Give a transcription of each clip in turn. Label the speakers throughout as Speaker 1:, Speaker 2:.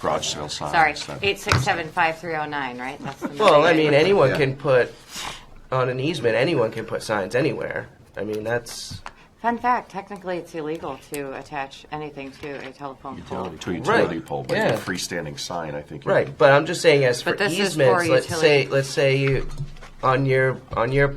Speaker 1: garage sale signs.
Speaker 2: Sorry,
Speaker 1: that-
Speaker 2: eight six seven five three oh nine, right? That's the
Speaker 3: Uh, Well, I mean, anyone
Speaker 1: Yeah.
Speaker 3: can put on an easement. Anyone can put signs anywhere. I mean, that's
Speaker 2: Fun fact, technically it's illegal to attach anything to a telephone pole.
Speaker 1: Utility, to a utility
Speaker 3: Right.
Speaker 1: pole, but
Speaker 3: Yeah.
Speaker 1: a freestanding sign, I think. you-
Speaker 3: right. But I'm just saying, as for
Speaker 2: But this is for
Speaker 3: easements, let's say,
Speaker 2: utility.
Speaker 3: let's say you on your on your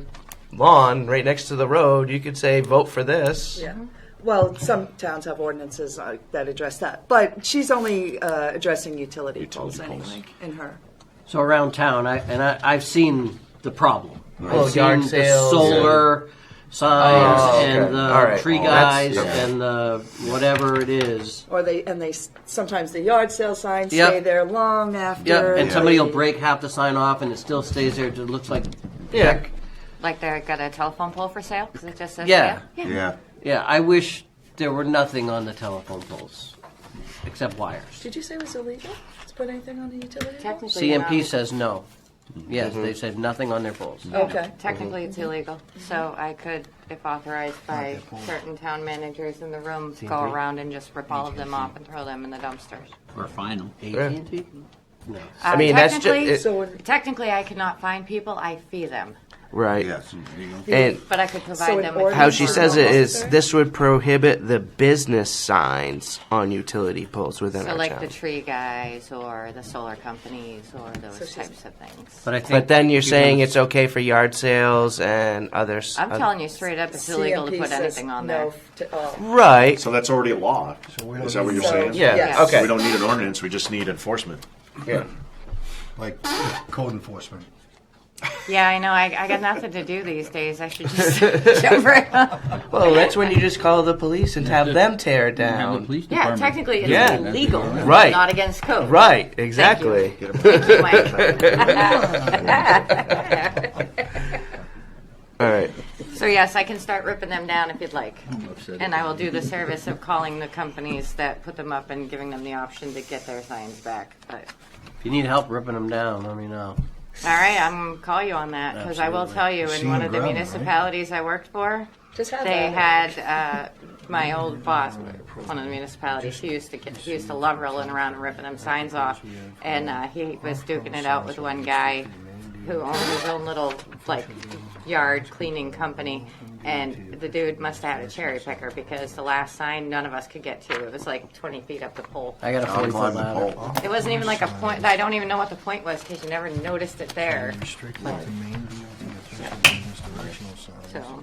Speaker 3: lawn right next to the road, you could say, vote for this.
Speaker 4: Yeah. Well, some towns have ordinances uh, that address that, but she's only uh, addressing utility poles
Speaker 1: Utility poles.
Speaker 4: anyway, in her.
Speaker 5: So around town, I, and I, I've seen the problem.
Speaker 3: Well,
Speaker 5: I've
Speaker 3: Oh, yard
Speaker 5: seen
Speaker 3: sales
Speaker 5: the solar signs
Speaker 3: Oh, okay.
Speaker 5: and the
Speaker 3: All right.
Speaker 5: tree
Speaker 3: Well, that's-
Speaker 5: guys and the whatever it is.
Speaker 4: Or they, and they, s- sometimes the yard sale signs
Speaker 5: Yep.
Speaker 4: stay there long after.
Speaker 5: Yep, and
Speaker 4: the-
Speaker 5: somebody will break half the sign off, and it still stays there. It just looks like
Speaker 3: Yeah.
Speaker 2: Like they got a telephone pole for sale because it just says
Speaker 5: Yeah.
Speaker 2: sale?
Speaker 1: Yeah.
Speaker 5: yeah. I wish there were nothing on the telephone poles except wires.
Speaker 4: Did you say it was illegal to put anything on the utility? pole?
Speaker 2: Technically, you're
Speaker 5: CMP
Speaker 2: not-
Speaker 5: says no. Yes, they said nothing on their poles.
Speaker 4: Okay.
Speaker 2: Technically, it's illegal, so I could, if authorized by certain town managers in the room, go around and just rip all of them off and throw them in the dumpsters. Uh,
Speaker 6: Or final.
Speaker 5: AT&T?
Speaker 3: I mean, that's just
Speaker 2: Technically-
Speaker 3: it,
Speaker 4: So when-
Speaker 2: Technically, I cannot find people, I fee them,
Speaker 3: right.
Speaker 6: Yes. There you go.
Speaker 3: And
Speaker 2: but I could
Speaker 4: So
Speaker 2: provide
Speaker 4: an
Speaker 2: them with.
Speaker 4: ordinance-
Speaker 3: how she says it is
Speaker 4: Officer?
Speaker 3: this would prohibit the business signs on utility poles within
Speaker 2: So
Speaker 3: our
Speaker 2: like
Speaker 3: town.
Speaker 2: the tree guys or the solar companies or those
Speaker 4: she's-
Speaker 2: types of things.
Speaker 5: But I think.
Speaker 3: but then you're saying
Speaker 5: can-
Speaker 3: it's okay for yard sales and others.
Speaker 2: I'm telling you straight up, it's illegal to
Speaker 4: CMP
Speaker 2: put
Speaker 4: says
Speaker 2: anything on
Speaker 4: no
Speaker 2: there.
Speaker 4: f- to all.
Speaker 3: Right.
Speaker 1: So that's already a law. Is that what you're
Speaker 4: So-
Speaker 1: saying?
Speaker 3: yeah.
Speaker 4: yes.
Speaker 3: Okay.
Speaker 1: We don't need an ordinance, we just need enforcement.
Speaker 3: Yeah.
Speaker 6: Like code enforcement.
Speaker 2: Yeah, I know, I, I got nothing to do these days, I should just jump right on.
Speaker 3: Well, that's when you just call the police and have them tear it
Speaker 6: Have the
Speaker 3: down.
Speaker 6: police
Speaker 2: Yeah,
Speaker 6: department.
Speaker 2: technically,
Speaker 3: Yeah.
Speaker 2: it's illegal,
Speaker 3: Right.
Speaker 2: not against code.
Speaker 3: Right, exactly.
Speaker 2: Thank you, Mike.
Speaker 3: All right.
Speaker 2: So yes, I can start ripping them down if you'd like.
Speaker 6: upset.
Speaker 2: And I will do the service of calling the companies that put them up and giving them the option to get their signs back. But,
Speaker 5: If you need help ripping them down, let me know.
Speaker 2: all right, I'm gonna call you on that, because I will
Speaker 5: Absolutely.
Speaker 2: tell you, in
Speaker 6: Seeing
Speaker 2: one of the
Speaker 6: ground, right?
Speaker 2: municipalities I worked for,
Speaker 4: Just have
Speaker 2: they
Speaker 4: that.
Speaker 2: had, uh, my old boss, one of the municipalities, he used to get, he used to love rolling around and ripping them signs off. And, uh, he was duking it out with one guy who owned his own little, like, yard cleaning company. And the dude must have had a cherry picker because the last sign none of us could get to. It was like twenty feet up the pole.
Speaker 5: I got a forty foot ladder.
Speaker 2: It wasn't even like a point, I don't even know what the point was because you never noticed it there,
Speaker 7: restricted to main DOT directional signs.
Speaker 2: so.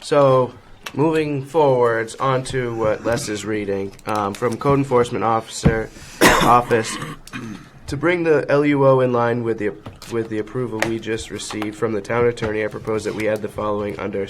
Speaker 3: So, moving forwards onto what Les is reading um, from Code Enforcement Officer Office to bring the LUO in line with the with the approval we just received from the town attorney. I propose that we add the following under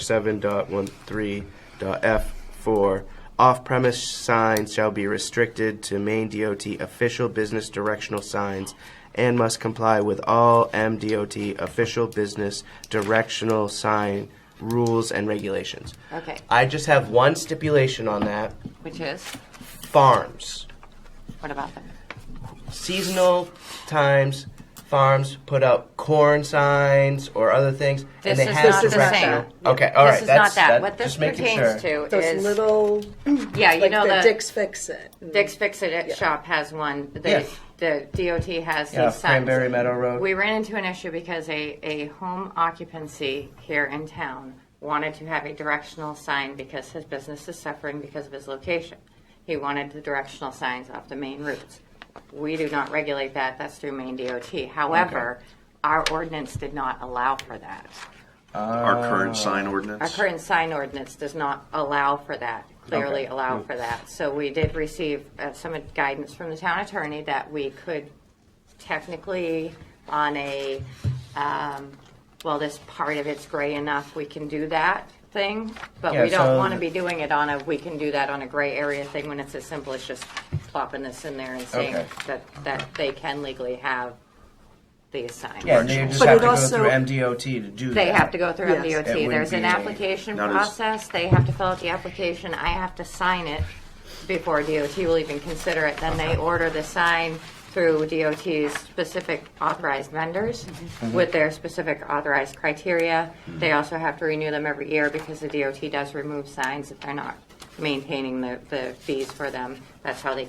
Speaker 3: 7.13.f4. Off-premise signs shall be restricted to main DOT official business directional signs and must comply with all MDOT official business directional sign rules and regulations.
Speaker 2: Okay,
Speaker 3: I just have one stipulation on that.
Speaker 2: which is,
Speaker 3: Farms.
Speaker 2: what about them?
Speaker 3: Seasonal times farms put out corn signs or other things
Speaker 2: This
Speaker 3: and they
Speaker 2: is
Speaker 3: have
Speaker 2: not
Speaker 4: the
Speaker 3: directional-
Speaker 2: same.
Speaker 3: Okay, all right.
Speaker 2: this is
Speaker 3: that's-
Speaker 2: not that.
Speaker 3: that-
Speaker 2: What this
Speaker 3: just making
Speaker 2: pertains
Speaker 3: sure.
Speaker 2: to
Speaker 4: Those
Speaker 2: is
Speaker 4: little,
Speaker 2: yeah, you
Speaker 4: like
Speaker 2: know
Speaker 4: the
Speaker 2: the
Speaker 4: Dick's Fix It.
Speaker 2: Dick's Fix It It shop has one. They, The DOT has
Speaker 3: Yeah,
Speaker 2: these signs.
Speaker 3: Cranberry Meadow Road.
Speaker 2: We ran into an issue because a, a home occupancy here in town wanted to have a directional sign because his business is suffering because of his location. He wanted the directional signs off the main routes. We do not regulate that. That's through Maine DOT. However, our ordinance did not allow for that.
Speaker 1: Our current sign ordinance?
Speaker 2: Our current sign ordinance does not allow for that, clearly allow
Speaker 3: Mm.
Speaker 2: for that. So we did receive uh, some guidance from the town attorney that we could technically, on a, um, well, this part of it's gray enough, we can do that thing, but
Speaker 3: Yeah,
Speaker 2: we
Speaker 3: so
Speaker 2: don't want to
Speaker 3: the-
Speaker 2: be doing it on a, we can do that on a gray area thing when it's as simple as just plopping this in there and saying
Speaker 3: Okay.
Speaker 2: that, that they can legally have these signs.
Speaker 3: Yeah, and they just
Speaker 4: But
Speaker 3: have
Speaker 4: it
Speaker 3: to go
Speaker 4: also-
Speaker 3: through MDOT to do
Speaker 2: They
Speaker 3: that.
Speaker 2: have to go through
Speaker 4: Yes.
Speaker 2: MDOT.
Speaker 3: It would
Speaker 2: There's an
Speaker 3: be a-
Speaker 2: application
Speaker 1: Not as-
Speaker 2: process. They have to fill out the application. I have to sign it before DOT will even consider it. Then they order the sign through DOT's specific authorized vendors
Speaker 3: Mm-hmm.
Speaker 2: with their specific authorized criteria. They also have to renew them every year because the DOT does remove signs if they're not maintaining the, the fees for them. That's how they